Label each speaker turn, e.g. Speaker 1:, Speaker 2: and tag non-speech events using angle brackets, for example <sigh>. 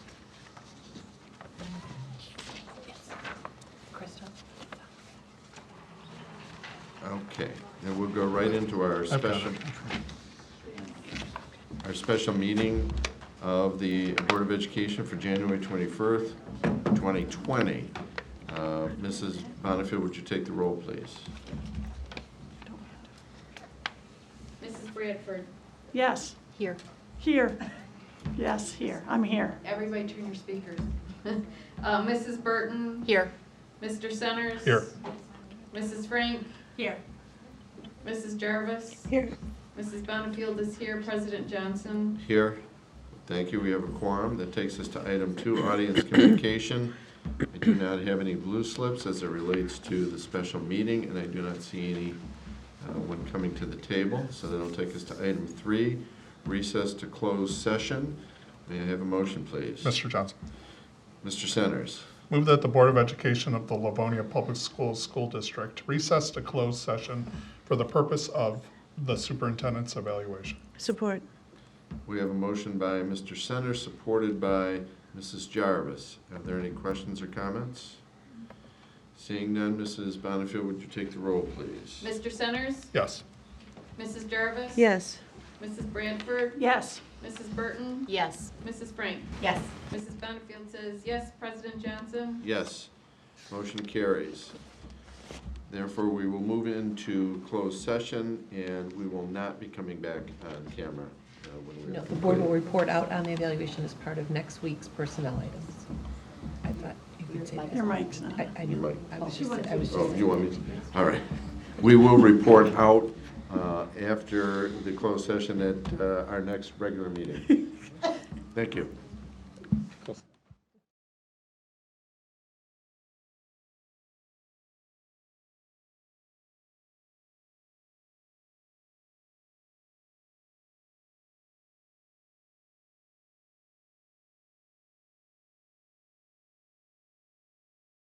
Speaker 1: Okay, and we'll go right into our
Speaker 2: I've got it.
Speaker 1: special, our special meeting of the Board of Education for January 21st, 2020. Uh, Mrs. Bonnefield, would you take the roll, please?
Speaker 3: Mrs. Bradford,
Speaker 4: Yes,
Speaker 5: Here.
Speaker 4: here. Yes, here. I'm here.
Speaker 3: everybody turn your speakers. <laughs> Uh, Mrs. Burton,
Speaker 5: Here.
Speaker 3: Mr. Centers.
Speaker 2: Here.
Speaker 3: Mrs. Frank,
Speaker 5: Here.
Speaker 3: Mrs. Jarvis.
Speaker 5: Here.
Speaker 3: Mrs. Bonnefield is here, President Johnson.
Speaker 1: Here, thank you, we have a quorum. That takes us to item two, audience <coughs> communication. I do not have any blue slips as it relates to the special meeting, and I do not see any uh, one coming to the table. So that'll take us to item three, recess to close session. May I have a motion, please?
Speaker 2: Mr. Johnson.
Speaker 1: Mr. Centers,
Speaker 2: Move that the Board of Education of the Livonia Public Schools School District recess to closed session for the purpose of the superintendent's evaluation.
Speaker 4: Support.
Speaker 1: we have a motion by Mr. Centers, supported by Mrs. Jarvis. Are there any questions or comments? Seeing none, Mrs. Bonnefield, would you take the roll, please?
Speaker 3: Mr. Centers,
Speaker 2: Yes.
Speaker 3: Mrs. Jarvis.
Speaker 4: Yes.
Speaker 3: Mrs. Bradford,
Speaker 4: Yes.
Speaker 3: Mrs. Burton,
Speaker 5: Yes.
Speaker 3: Mrs. Frank.
Speaker 5: Yes.
Speaker 3: Mrs. Bonnefield says yes, President Johnson.
Speaker 1: Yes. Motion carries. Therefore, we will move into closed session, and we will not be coming back on camera uh, when we
Speaker 6: No,
Speaker 1: are
Speaker 6: the board will
Speaker 1: completed.
Speaker 6: report out on the evaluation as part of next week's personnel items. I thought you could say
Speaker 4: Your
Speaker 6: that.
Speaker 4: mic's not.
Speaker 6: I, I knew, I was just, I was
Speaker 1: Oh,
Speaker 6: just,
Speaker 1: you want me to, all right. We will report out uh,
Speaker 6: <laughs>
Speaker 1: after the closed session at uh, our next regular meeting. Thank you.